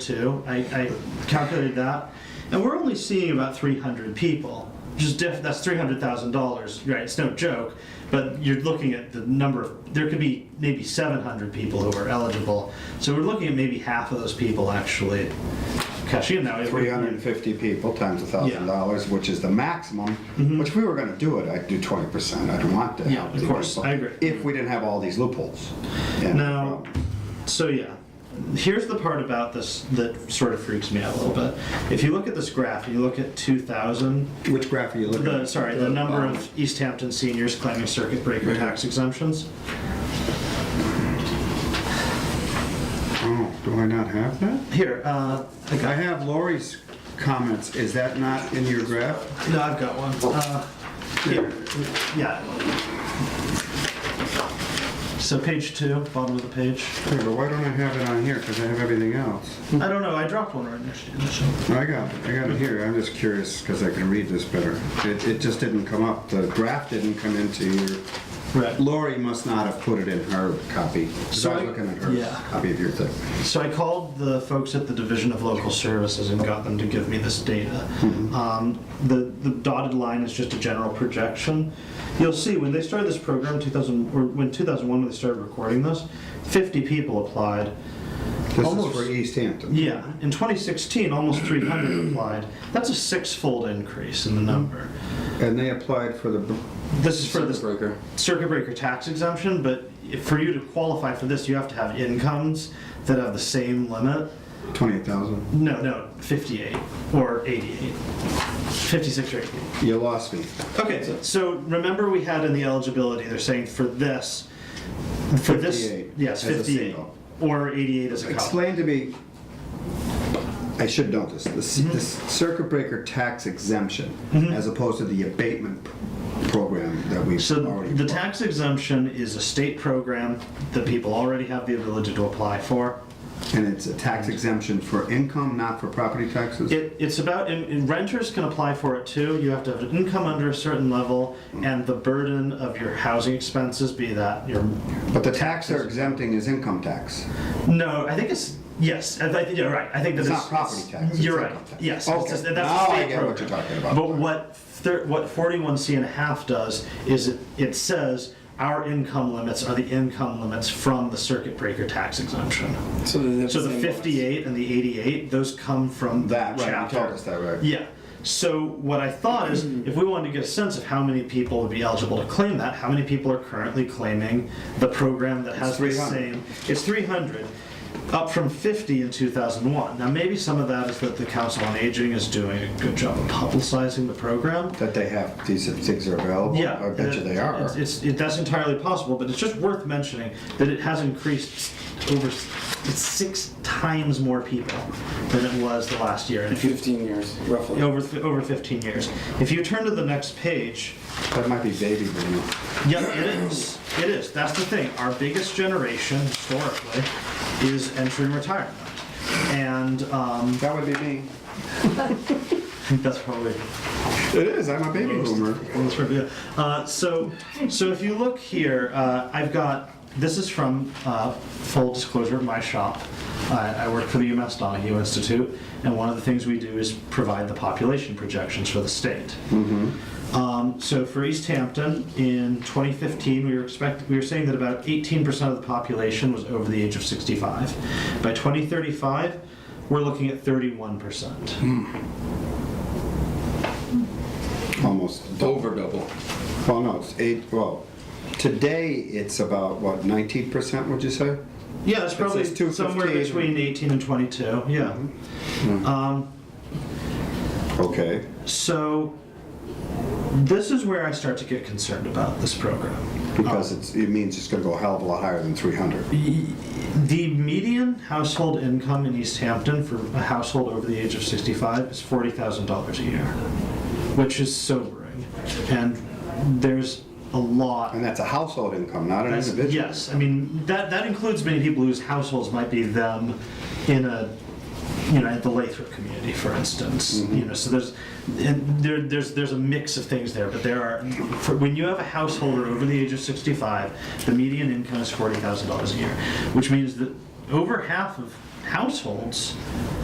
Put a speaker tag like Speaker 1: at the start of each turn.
Speaker 1: two. I, I calculated that, and we're only seeing about 300 people. Which is diff- that's three hundred thousand dollars, right? It's no joke, but you're looking at the number. Of, there could be maybe seven hundred people who are eligible, so we're looking at maybe half of those people actually cash in. Now If we-
Speaker 2: 350 people times $1,000, which is the maximum, which we were gonna do it, I'd do 20%, I don't want to
Speaker 1: Mm-hmm. Yeah,
Speaker 2: have
Speaker 1: of
Speaker 2: the
Speaker 1: course,
Speaker 2: people
Speaker 1: I agree.
Speaker 2: If we didn't have all these loopholes. And-
Speaker 1: Now, so yeah, here's the part about this that sort of freaks me out a little bit. If you look at this graph, you look at 2000,
Speaker 2: Which graph are you looking
Speaker 1: the,
Speaker 2: at?
Speaker 1: sorry, the number of East Hampton seniors claiming circuit breaker tax exemptions.
Speaker 2: Oh, do I not have that?
Speaker 1: Here, uh, I
Speaker 2: I
Speaker 1: got,
Speaker 2: have Lori's comments, is that not in your graph?
Speaker 1: no, I've got one. Uh, here, yeah. So page two, bottom of the page.
Speaker 2: Okay, but why don't I have it on here, because I have everything else?
Speaker 1: I don't know, I dropped one right next to you.
Speaker 2: I got it, I got it here, I'm just curious, because I can read this better. It, it just didn't come up, the graph didn't come into your
Speaker 1: Right.
Speaker 2: Lori must not have put it in her copy. 'cause I was
Speaker 1: So I-
Speaker 2: looking at her
Speaker 1: yeah.
Speaker 2: copy of your thing.
Speaker 1: So I called the folks at the Division of Local Services and got them to give me this data.
Speaker 2: Mm-hmm.
Speaker 1: Um, The the dotted line is just a general projection. You'll see, when they started this program, 2000, or when 2001, when they started recording this, 50 people applied.
Speaker 2: This
Speaker 1: Almost-
Speaker 2: is for East Hampton.
Speaker 1: Yeah, in 2016, almost 300 applied. That's a six-fold increase in the number.
Speaker 2: And they applied for the br-
Speaker 1: This is for the
Speaker 3: Circuit breaker.
Speaker 1: circuit breaker tax exemption, but if- for you to qualify for this, you have to have incomes that have the same limit.
Speaker 2: 28,000.
Speaker 1: No, no, 58 or 88. 56 or 88.
Speaker 2: You lost me.
Speaker 1: Okay, so remember we had in the eligibility, they're saying for this, for this,
Speaker 2: 58
Speaker 1: yes,
Speaker 2: as a
Speaker 1: 58.
Speaker 2: single.
Speaker 1: Or 88 as a couple.
Speaker 2: Explain to me, I should know this, the c- the circuit breaker tax exemption as opposed to the abatement p- program that we've
Speaker 1: So
Speaker 2: already.
Speaker 1: the tax exemption is a state program that people already have the ability to apply for.
Speaker 2: And it's a tax exemption for income, not for property taxes?
Speaker 1: It, it's about, and, and renters can apply for it too. You have to have an income under a certain level and the burden of your housing expenses, be that your
Speaker 2: But the tax they're exempting is income tax.
Speaker 1: No, I think it's yes. I, I think you're right. I think that
Speaker 2: It's
Speaker 1: it's,
Speaker 2: not property tax, it's
Speaker 1: You're right.
Speaker 2: income tax.
Speaker 1: Yes.
Speaker 2: Okay,
Speaker 1: It's just-
Speaker 2: now
Speaker 1: a
Speaker 2: I
Speaker 1: state
Speaker 2: get what you're talking about.
Speaker 1: But what thir- what 41C and a half does is it, it says our income limits are the income limits from the circuit breaker tax exemption.
Speaker 3: So the,
Speaker 1: So the 58 and the 88, those come from
Speaker 2: That, right, you
Speaker 1: chapter.
Speaker 2: told us that, right?
Speaker 1: Yeah. So what I thought is, if we wanted to get a sense of how many people would be eligible to claim that, how many people are currently claiming the program that has the
Speaker 2: 300.
Speaker 1: same? It's 300, up from 50 in 2001. Now maybe some of that is that the Council on Aging is doing a good job of publicizing the program.
Speaker 2: That they have, these things are available?
Speaker 1: Yeah,
Speaker 2: I bet you they
Speaker 1: it-
Speaker 2: are.
Speaker 1: It's, it's- it- that's entirely possible, but it's just worth mentioning that it has increased over s- it's six times more people than it was the last year. And if you
Speaker 3: 15 years, roughly.
Speaker 1: over over 15 years. If you turn to the next page,
Speaker 2: That might be baby boom.
Speaker 1: yep, it is. It is. That's the thing. Our biggest generation historically is entering retirement, and um,
Speaker 2: That would be me.
Speaker 1: I think that's probably
Speaker 2: It is, I'm a baby boomer.
Speaker 1: That's right, yeah. Uh, so, so if you look here, uh, I've got, this is from, uh, full disclosure, my shop. I, I work for the UMass Donahue Institute, and one of the things we do is provide the population projections for the state. Um, so for East Hampton, in 2015, we were expect, we were saying that about 18% of the population was over the age of 65. By 2035, we're looking at 31%.
Speaker 2: Almost.
Speaker 3: Over double.
Speaker 2: Well, no, it's eight, well, today it's about, what, 19%, would you say?
Speaker 1: Yeah, it's probably
Speaker 2: says 215.
Speaker 1: somewhere between 18 and 22. Yeah. Um,
Speaker 2: Okay.
Speaker 1: so this is where I start to get concerned about this program.
Speaker 2: Because it's, it means it's gonna go a hell of a lot higher than 300.
Speaker 1: The median household income in East Hampton for a household over the age of 65 is $40,000 a year, which is sobering. And there's a lot
Speaker 2: And that's a household income, not an
Speaker 1: That's-
Speaker 2: individual.
Speaker 1: Yes, I mean, that, that includes many people whose households might be them in a, you know, at the Lathrop community, for instance. You know, so there's, and there, there's, there's a mix of things there, but there are, for, when you have a householder over the age of 65, the median income is $40,000 a year, which means that over half of households